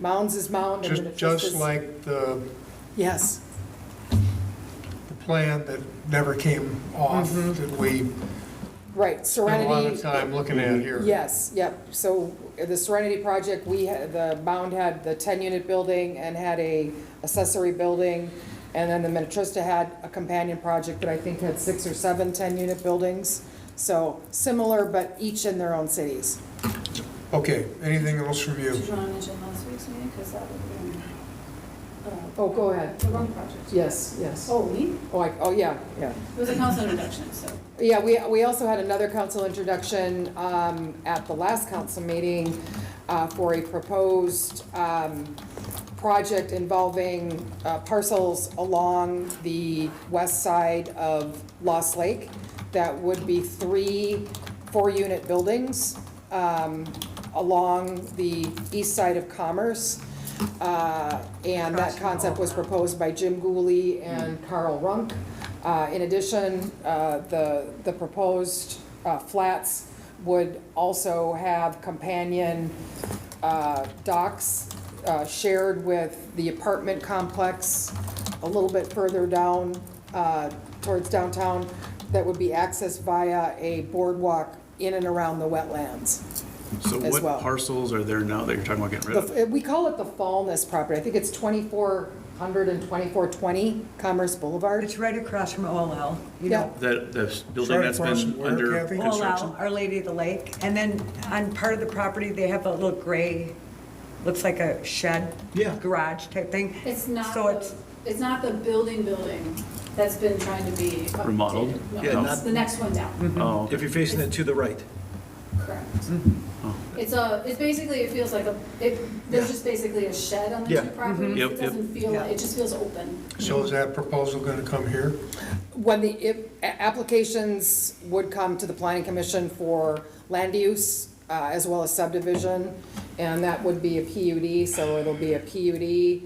Mounds is mound. and then Just, if this just is- like the, Yes, the plan that never came off, Mhm. that we right, spent a lot Serenity. of time looking at here. Yes, yep, so uh, the Serenity project, we, had the mound had the ten-unit building and had a accessory building, and then the Minnetrista had a companion project that I think had six or seven ten-unit buildings, so similar, but each in their own cities. Okay, anything else from you? Did you want to mention last week's meeting, because that would be, uh, Oh, go ahead. the wrong project. Yes, yes. Oh, we, Oh, I, oh, yeah, yeah. it was a council introduction, so. Yeah, we, we also had another council introduction um, at the last council meeting uh, for a proposed um, project involving uh, parcels along the west side of Lost Lake that would be three four-unit buildings um, along the east side of Commerce. Uh, And that concept was proposed by Jim Gooley and Carl Runk. Uh, In addition, uh, the, the proposed uh, flats would also have companion uh, docks uh, shared with the apartment complex a little bit further down uh, towards downtown that would be accessed via a boardwalk in and around the wetlands. So as what well. parcels are there now that you're talking about getting rid of? The- We call it the Fallness property. I think it's 2400 and 2420 Commerce Boulevard. It's right across from OLL, you Yeah. know, That, the building Sorry, that's Carson, been where, under Kathy? OLL, construction? Our Lady of the Lake. And then on part of the property, they have a little gray, looks like a shed. Yeah. Garage type thing. It's not, So the- it's, it's not the building building that's been trying to be. updated. Remodeled? No, Yeah, It's not- the next one down, Oh, If okay. you're facing it to the right. correct. Oh. It's a, it's basically, it feels like a, it, there's just basically a shed on the Yeah. two properties. Yep, It yep. doesn't feel, Yeah. like it just feels open. So is that proposal gonna come here? When the, if, a- applications would come to the planning commission for land use, uh, as well as subdivision, and that would be a PUD, so it'll be a PUD,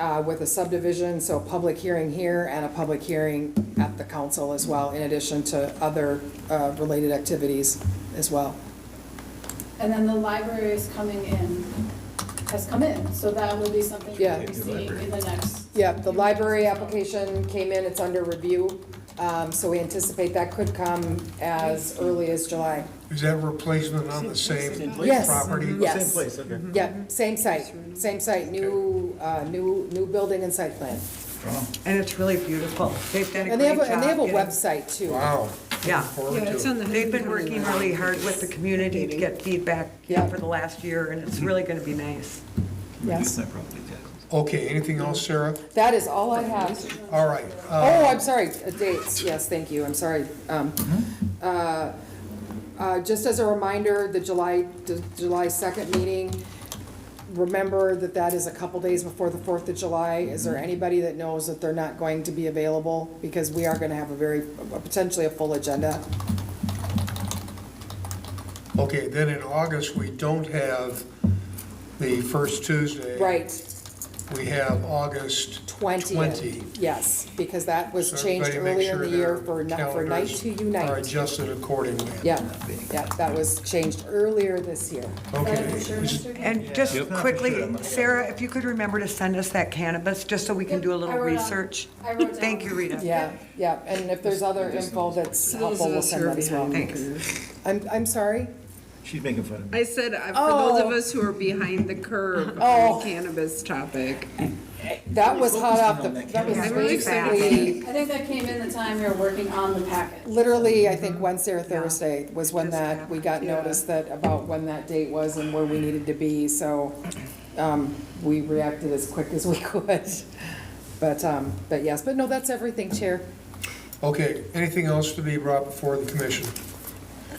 uh, with a subdivision, so a public hearing here and a public hearing at the council as well, in addition to other, uh, related activities as well. And then the library is coming in, has come in, so that will be something Yeah. we'll be seeing in the next. Yeah, the library application came in, it's under review, um, so we anticipate that could come as early as July. Is that replacement on the same property? Yes. Yes. okay. Yep, same site, same site, new, uh, new, new building and site plan. and it's really beautiful. They've done a And they have, great job. a- and they have a getting- website too. Wow. Yeah. Forward to it. They've been working really hard with the community to get feedback you know, for the last year, and it's really going to be nice. Yes, my property taxes. Okay, anything else, Sarah? that is all I have. All right. uh, Oh, I'm sorry, uh, dates, yes, thank you, I'm sorry. Um, Mm-hmm. uh, uh, Just as a reminder, the July, the July 2nd meeting, remember that that is a couple days before the 4th of July. Is Mm-hmm. there anybody that knows that they're not going to be available? Because we are going to have a very, potentially a full agenda. Okay, then in August, we don't have the first Tuesday. Right, We have August 20th, twenty. yes, because that was So changed everybody make earlier in sure the year their for, ni- for night calendars to Are unite. adjusted accordingly. Yeah, yeah, that was changed earlier this year. Okay. Is that for sure, is- Mr. And just quickly, Sarah, if you could remember to send us that cannabis, just so we can do a Yep, I little wrote down- research. I wrote down. Thank you, Rita. Yeah, yeah, and if there's other info that's helpful, we'll send that as well. Thanks. I'm, I'm sorry? She's making fun of me. I said, uh, for those of Oh. us who are behind the curve Oh. on the cannabis topic. That was hot off the, that was Yeah, really fast. basically, I think that came in the time we were working on the packet. literally, I think Wednesday or Thursday was when Just that, we got notice that, about when that date was and where we needed to be, so, um, we reacted as quick as we could. But, um, but yes, but no, that's everything, Chair. Okay, anything else to be brought before the commission?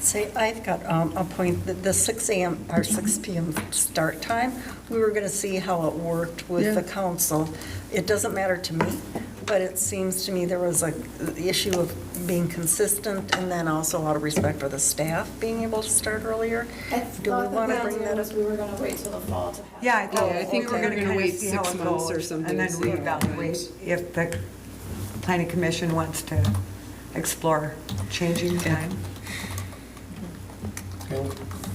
Say, I've got um, a point, that the 6 AM, or 6 PM start time, we were going to see how it worked with the council. It doesn't matter to me, but it seems to me there was a, the issue of being consistent and then also a lot of respect for the staff being able to start earlier. I Do we thought the wanna plan bring that was we were gonna wait till the fall to have. Yeah, I Yeah, thought, I we think were we're gonna gonna kind of wait see how six it months or goes, and something, then see what happens. reevaluate if the planning commission wants to explore changing time.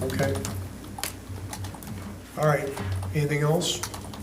Okay. All right, anything else?